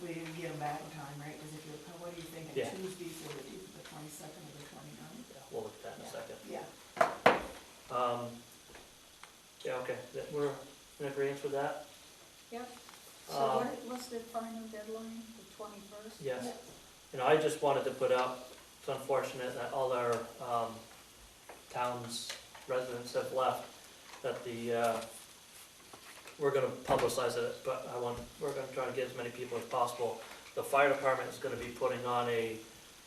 We didn't get them back in time, right? Because if you're, oh, what are you thinking, Yeah. Tuesday for the, the twenty-second or the twenty-ninth? Yeah, We'll look at that in a second. Yeah, Um, yeah, okay, that, we're in agreement with that? Yep. So Um, what, what's the final deadline, the twenty-first? Yes. You know, I just wanted to put out, it's unfortunate that all our um, town's residents have left, that the, uh, we're gonna publicize it, but I want, we're gonna try to get as many people as possible. The fire department is gonna be putting on a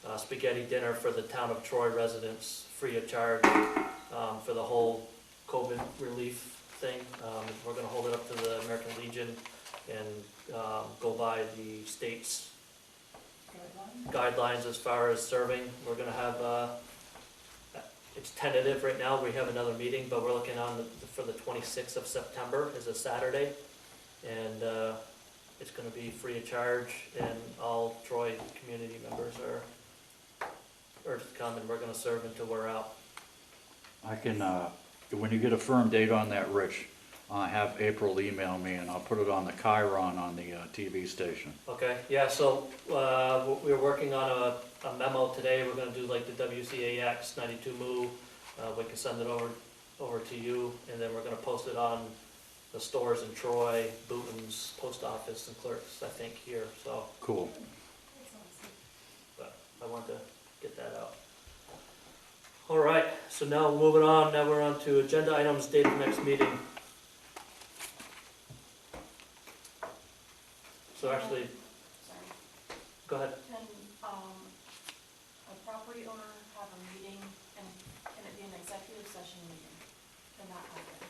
uh, spaghetti dinner for the town of Troy residents, free of charge, um, for the whole COVID relief thing. Um, We're gonna hold it up to the American Legion and um, go by the state's deadline? guidelines as far as serving. We're gonna have, uh, it's tentative right now, we have another meeting, but we're looking on the- for the twenty-sixth of September is a Saturday. And, uh, it's gonna be free of charge and all Troy community members are, urged to come and we're gonna serve until we're out. I can, uh, when you get a firm date on that, Rich, uh, have April email me and I'll put it on the Chiron on the, uh, TV station. Okay, yeah, so, uh, we- we're working on a, a memo today, we're gonna do like the WCAX ninety-two move. Uh, we can send it over, over to you, and then we're gonna post it on the stores in Troy, Booton's, post office, and clerks, I think, here, so Cool. I wanted to get that out. All right, so now moving on, now we're on to agenda items, date of next meeting. So actually, Sorry. go ahead. Can, um, a property owner have a meeting and can it be an executive session meeting? Can that happen?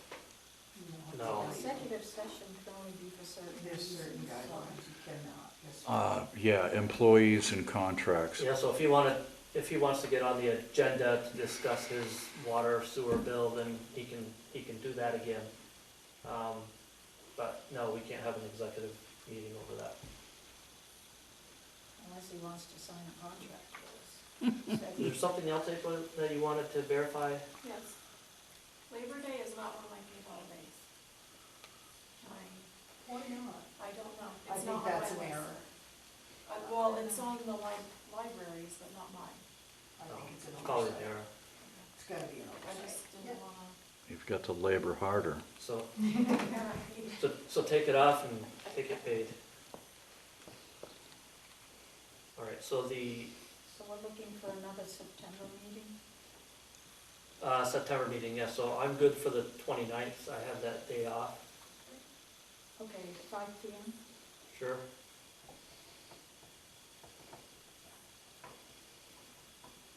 You know, No. Executive session can only be for certain. There's certain reasons, so- guidelines you cannot. yes. Uh, yeah, employees and contracts. Yeah, so if he wanted, if he wants to get on the agenda to discuss his water sewer bill, then he can, he can do that again. Um, But no, we can't have an executive meeting over that. Unless he wants to sign a contract with Is there us. something else, April, that you wanted to verify? Yes. Labor Day is not one of my favorite holidays. Can I, Why not? I don't know. I It's think not on that's my an list. error. Uh, well, it's on the li- libraries, but not mine. I think it's an Call it oversight. there. It's gotta be an I oversight. just didn't wanna. You've got to labor harder. So, Apparently. so, so take it off and take it paid. All right, so the So we're looking for another September meeting? uh, September meeting, yeah, so I'm good for the 29th. I have that day off, Okay, five P M? sure.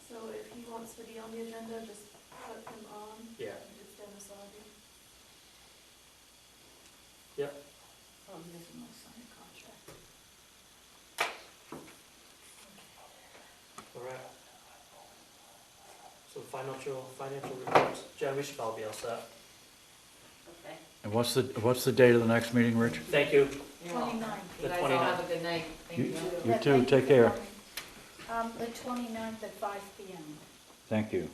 So if he wants to be on the agenda, just put him on. Yeah. It's Dennis Lobby. Oh, he doesn't want to sign a contract. All right. So financial, financial reports, Jen, we should probably be all set. Okay. And what's the, what's the date of the next meeting, Rich? Thank you. Twenty-nine. You The guys all 29th. have a good night. Thank You- you. You too, take care. Um, the twenty-ninth at five P M. Thank you.